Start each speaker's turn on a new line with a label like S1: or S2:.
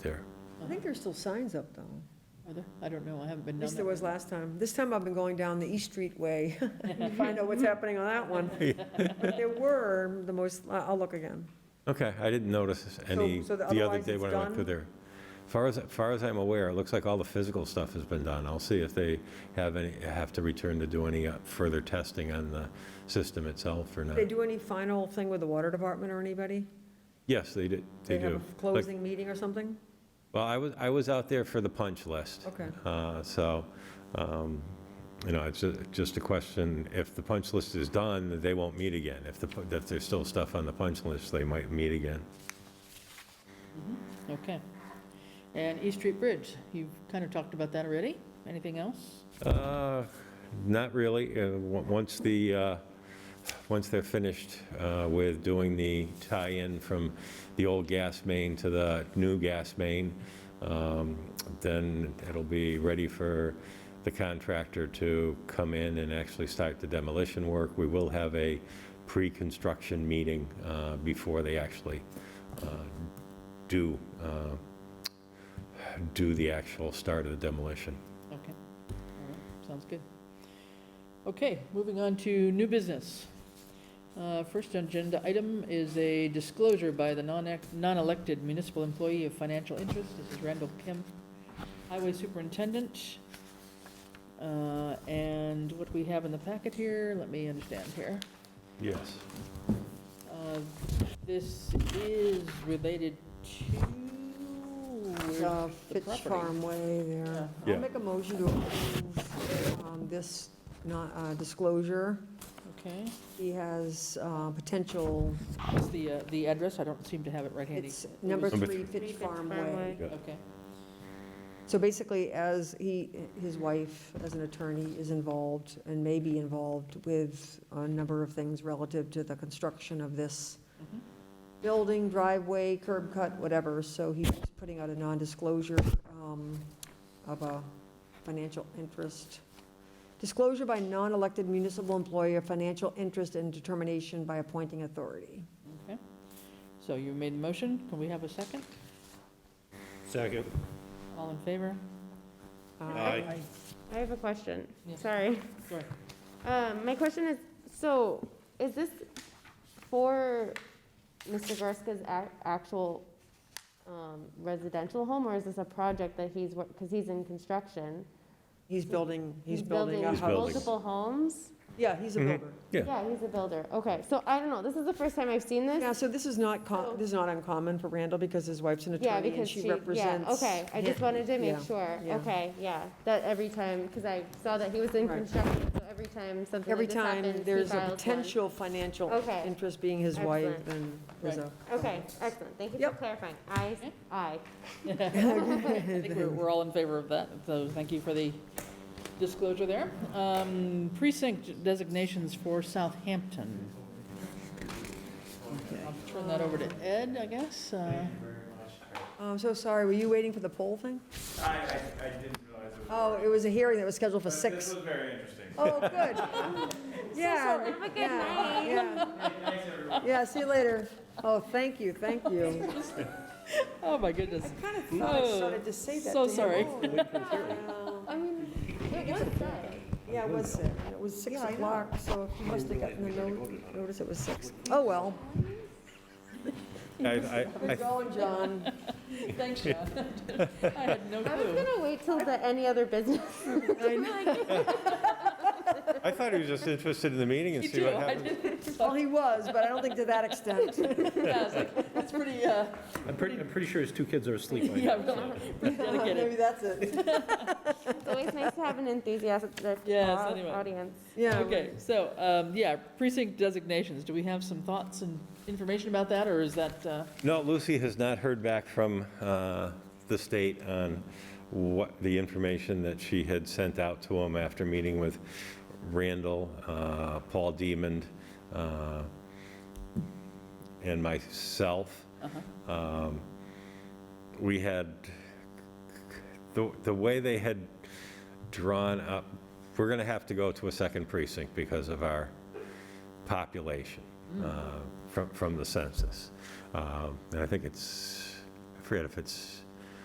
S1: there.
S2: I think there's still signs up though.
S3: Are there? I don't know, I haven't been
S2: At
S3: down
S2: least there
S3: there.
S2: was last time. This time I've been going down the East Street way to find out what's happening on that one. But there were the most, I- I'll look again.
S1: Okay, I didn't notice any
S2: so the-
S1: the other
S2: otherwise
S1: day
S2: it's
S1: when I went through
S2: done?
S1: there. Far as, far as I'm aware, it looks like all the physical stuff has been done. I'll see if they have any, have to return to do any uh, further testing on the system itself or not.
S2: Did they do any final thing with the water department or anybody?
S1: Yes, they did, they do.
S2: have a
S1: Like,
S2: closing meeting or something?
S1: Well, I was, I was out there for the punch list.
S2: Okay.
S1: Uh, So, um, you know, it's ju- just a question, if the punch list is done, they won't meet again. If the, pu- if there's still stuff on the punch list, they might meet again.
S3: Okay. And East Street Bridge, you've kind of talked about that already. Anything else?
S1: Uh, Not really. Uh, on- Once the, uh, once they're finished uh, with doing the tie-in from the old gas main to the new gas main, um, then it'll be ready for the contractor to come in and actually start the demolition work. We will have a pre-construction meeting uh, before they actually uh, do, uh, do the actual start of the demolition.
S3: Okay. All right. Sounds good. Okay, moving on to new business. Uh, First agenda item is a disclosure by the non-act- non-elected municipal employee of financial interest. This is Randall Kim, Highway Superintendent. Uh, And what we have in the packet here, let me understand here.
S1: Yes.
S3: Uh, This is related to
S2: Uh,
S3: where's the
S2: Fitch
S3: property?
S2: Farm Way there.
S1: Yeah.
S2: I'll make a motion to approve um, this not- uh, disclosure.
S3: Okay,
S2: He has uh, potential,
S3: what's the, uh, the address? I don't seem to have it right handy.
S2: it's
S3: It
S2: number
S3: was-
S1: Number
S2: three
S1: three.
S2: Fitch Farm Way.
S3: Okay,
S2: So basically, as he, his wife, as an attorney, is involved and may be involved with a number of things relative to the construction of this
S3: Mhm.
S2: building, driveway, curb cut, whatever, so he's putting out a non-disclosure um, of a financial interest. Disclosure by non-elected municipal employee of financial interest and determination by appointing authority.
S3: so you made the motion. Can we have a second?
S4: Second.
S3: All in favor?
S1: Uh,
S4: Aye.
S5: I have a question,
S3: Yes.
S5: sorry.
S3: Go ahead.
S5: Um, my question is, so, is this for Mr. Gorska's ac- actual, um, residential home, or is this a project that he's, wor- cause he's in construction?
S2: He's building, he's building a
S1: He's building.
S2: house.
S5: Multiple homes?
S2: Yeah, he's a
S1: Mhm.
S2: builder.
S1: Yeah.
S5: Yeah, he's a builder, okay, so I don't know, this is the first time I've seen
S2: Yeah,
S5: this,
S2: so this is not, co-
S5: So-
S2: this is not uncommon for Randall because his wife's an
S5: Oh. yeah,
S2: attorney and
S5: because
S2: she
S5: she, yeah,
S2: represents.
S5: okay, I just wanted to make
S2: Yeah,
S5: sure,
S2: yeah.
S5: okay, yeah, that every time, cause I saw that he was in
S2: Right.
S5: construction, so every time something
S2: Every
S5: like this happens, he
S2: time there's a
S5: files one.
S2: potential financial
S5: Okay.
S2: interest being his wife and there's a.
S3: Right.
S5: Okay, excellent, thank you for
S2: Yep.
S5: clarifying, aye,
S3: Okay.
S5: aye.
S3: I think we're, we're all in favor of that, so thank you for the disclosure there. Um, Precinct designations for Southampton. I'll turn that over to Ed, I guess. uh,
S2: Oh, I'm so sorry, were you waiting for the poll thing?
S6: I, I, I didn't realize it was.
S2: Oh, it was a hearing that was scheduled for
S6: but This
S2: six.
S6: was very interesting.
S2: Oh, good. Yeah.
S5: Have a good night.
S2: yeah, yeah. Yeah, see you later. Oh, thank you, thank you.
S3: Oh, my goodness.
S2: Kind of thought I started to say that
S3: So
S2: to him.
S3: sorry.
S2: Oh,
S5: I mean, it was sad.
S2: Yeah, it was six. It was six o'clock, so you must have gotten the note- notice it was six. Oh, well.
S1: I, I, I
S2: Good going, John.
S3: Thanks, John. I had no
S5: I was
S3: clue.
S5: gonna wait till the any other business.
S1: I thought he was just interested in the meeting and
S3: You
S1: see
S3: do,
S1: what
S3: I
S1: happens.
S3: didn't.
S2: Well, he was, but I don't think to that extent.
S3: Yeah, I was like, that's pretty, uh,
S4: I'm pretty, I'm pretty sure his two kids are asleep right
S3: yeah,
S4: now.
S3: really, pretty
S2: Maybe
S3: dedicated.
S2: that's it.
S5: It's always nice to have an enthusiastic
S3: Yes,
S5: au-
S3: anyway.
S5: audience.
S2: Yeah.
S3: Okay, so, um, yeah, precinct designations, do we have some thoughts and information about that, or is that, uh,
S1: No, Lucy has not heard back from uh, the state on what, the information that she had sent out to him after meeting with Randall, uh, Paul Diamond, uh, and myself. Um, We had, the, the way they had drawn up, we're going to have to go to a second precinct because of our population uh, from, from the census. Um, And I think it's, I forget if it's